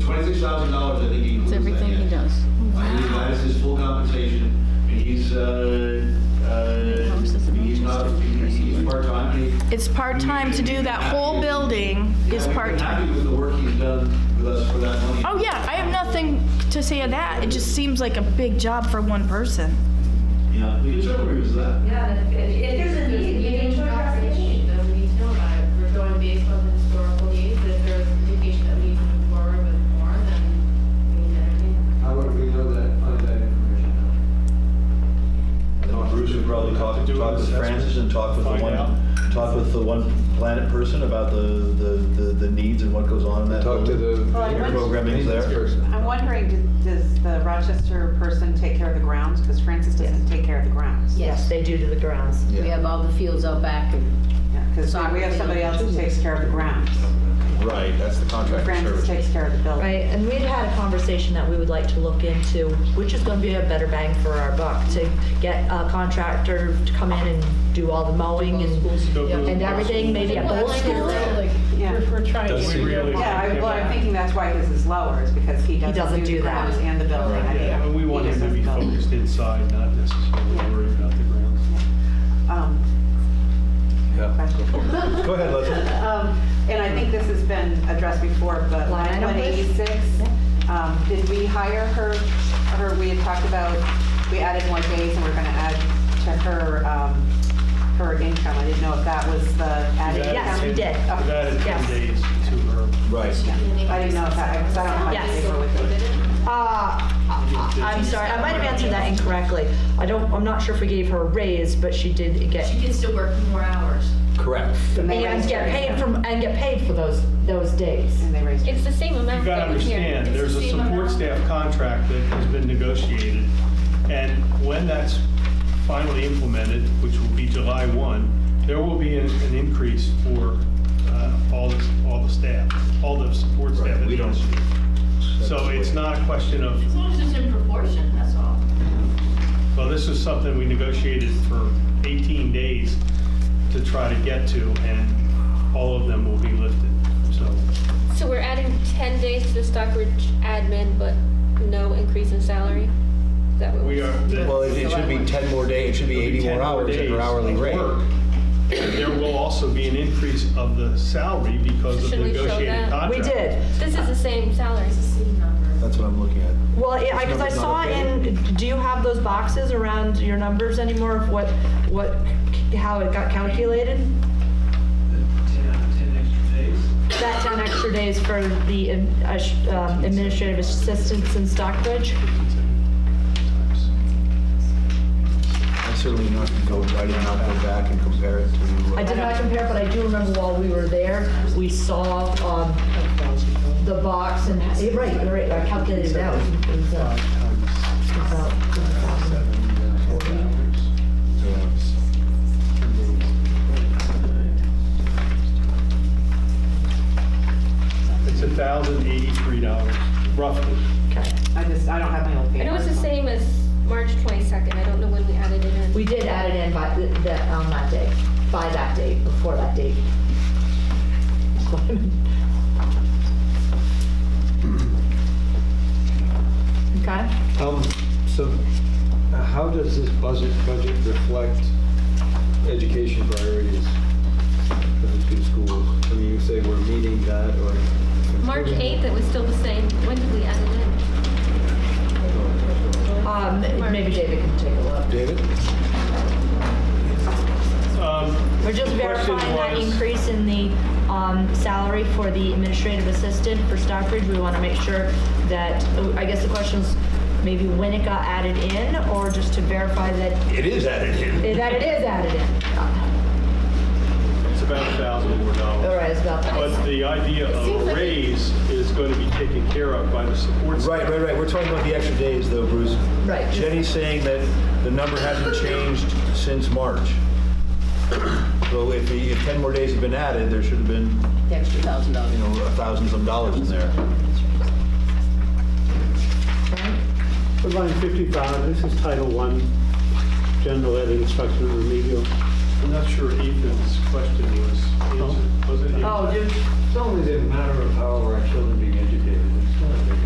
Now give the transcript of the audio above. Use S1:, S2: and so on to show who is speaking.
S1: twenty-six thousand dollars, I think he includes
S2: It's
S1: that.
S2: everything he
S1: yeah.
S2: does.
S1: I believe that is his full compensation, and he's, uh, uh,
S2: Promise it's a
S1: he's not,
S2: Manchester
S1: he-
S2: person.
S1: he's part-time, and he.
S3: It's part-time to do that whole building is
S1: Yeah, we've been
S3: part-time.
S1: Happy with the work he's done with us for that money.
S3: Oh, yeah, I have nothing to say to that. It just seems like a big job for one person.
S1: Yeah, we can certainly agree with that.
S4: Yeah, if, if there's a need, you need to address the issue.
S5: That we need to know about it. We're going based on the historical needs. If there's indication that we need to move forward with more, then we need to entertain.
S6: How would we know that, find that information?
S7: Bruce would probably talk, talk with Francis and talk with the
S8: Find
S7: one,
S8: out.
S7: talk with the one planet person about the, the, the- the needs and what goes on in that.
S6: Talk to
S7: building.
S6: the
S9: Well, I went-
S7: Programming's there.
S6: person.
S9: I'm wondering, do- does the Rochester person take care of the grounds? Because Francis doesn't take care of the grounds.
S10: Yes, they do to the grounds. We
S7: Yeah.
S10: have all the fields out back and
S9: Because
S10: Soccer
S9: we have somebody
S10: field.
S9: else who takes care of the grounds.
S8: Right, that's the contract
S9: Francis takes care of the building.
S10: Right, and we'd had a conversation that we would like to look into, which is gonna be a better bang for our buck, to get a contractor to come in and do all the mowing and, and everything, maybe at both schools.
S9: Yeah.
S2: We're we're trying to
S8: Does he
S2: figure out
S8: really-
S2: why.
S9: Yeah, I- well, I'm thinking that's why his is lower, is because he doesn't do the
S10: that.
S9: grounds and the building. I think
S8: Yeah, and we want
S9: he
S8: him to
S9: does
S8: be
S9: the building.
S8: focused inside, not necessarily
S9: Yeah.
S8: worried about the grounds.
S9: Um,
S7: Yeah.
S9: question.
S7: Go ahead, Leslie.
S9: Um, And I think this has been addressed before, but
S10: Line
S9: line
S10: item list?
S9: 186, um, did we hire her, her, we had talked about, we added more days and we're gonna add to her, um, her income. I didn't know if that was the added
S8: We've
S9: income.
S10: Yes,
S8: added-
S10: we did.
S8: We've added 10
S10: Yes.
S8: days to her.
S7: Right.
S9: I didn't know if that, because I don't know how to
S10: Yes.
S9: figure with it.
S10: Uh, I- I'm sorry, I might have answered that incorrectly. I don't, I'm not sure if we gave her a raise, but she did get,
S5: She can still work more hours.
S7: Correct.
S9: And they
S10: and
S9: raised her
S10: get paid
S9: income.
S10: from, and get paid for those, those days.
S9: And they raised her.
S4: It's the same amount
S8: You've got to
S4: that we
S8: understand, there's a support staff contract that has been negotiated, and when that's finally implemented, which will be July 1, there will be an an increase for uh, all the, all the staff, all the support staff.
S7: Right, we don't-
S8: So it's not a question of,
S5: As long as it's in proportion, that's all.
S8: well, this is something we negotiated for 18 days to try to get to, and all of them will be lifted, so.
S4: So we're adding 10 days to the Stockbridge admin, but no increase in salary? Is that what?
S8: We
S4: we're-
S8: are. the-
S7: Well, it it should be 10 more days, it should be 80 more
S8: 10
S7: hours at
S8: days
S7: her hourly
S8: of
S7: rate.
S8: work. There will also be an increase of the salary because of the
S4: Should we show
S8: negotiated
S4: that?
S8: contract.
S10: We did.
S4: This is the same salary.
S7: That's what I'm looking at.
S10: Well, yeah, because I
S7: It's
S10: saw
S7: not okay.
S10: in, do you have those boxes around your numbers anymore of what, what, how it got calculated? That 10 extra days for the um, uh, sh- um, administrative assistants in Stockbridge?
S7: I'm certainly not going to go, I did not go back and compare it to. uh,
S10: I did not compare, but I do remember while we were there, we saw um, the box and, eh, right, you're right, I calculated it out. It was, uh, about 10,000.
S8: It's a thousand eighty-three dollars, roughly.
S10: Okay.
S9: I just, I don't have my old paper.
S4: I know it's the same as March 22nd. I don't know when we added it in.
S10: We did add it in by, th- that, on that day, by that date, before that date. Okay?
S6: Um, so uh, how does this budget, budget reflect education priorities for the two schools? I mean, you say we're meeting that or?
S4: March 8th, it was still the same. When did we add it in?
S10: Um, maybe David can take a look.
S7: David?
S8: Um,
S10: We're just
S8: The question
S10: verifying that
S8: was-
S10: increase in the, um, salary for the administrative assistant for Stockbridge. We wanna make sure that, oh, I guess the question's maybe when it got added in, or just to verify that,
S7: It is added in.
S10: that it is added in.
S8: It's about a thousand more
S10: All
S8: dollars.
S10: right, it's about that.
S8: But the idea of a raise is going to be taken care of by the support staff.
S7: Right, right, right, we're talking about the extra days though, Bruce.
S10: Right.
S7: Jenny's saying that the number hasn't changed since March. So if the, if 10 more days had been added, there should have been,
S10: The extra thousand
S7: you
S10: dollars.
S7: know, a thousand some dollars in there.
S11: Line 55, this is Title I, General Ed Instruction and Remedial.
S8: I'm not sure Ethan's question was answered, was it? Ethan?
S10: Oh, dude.
S6: It's only the matter of how our children begin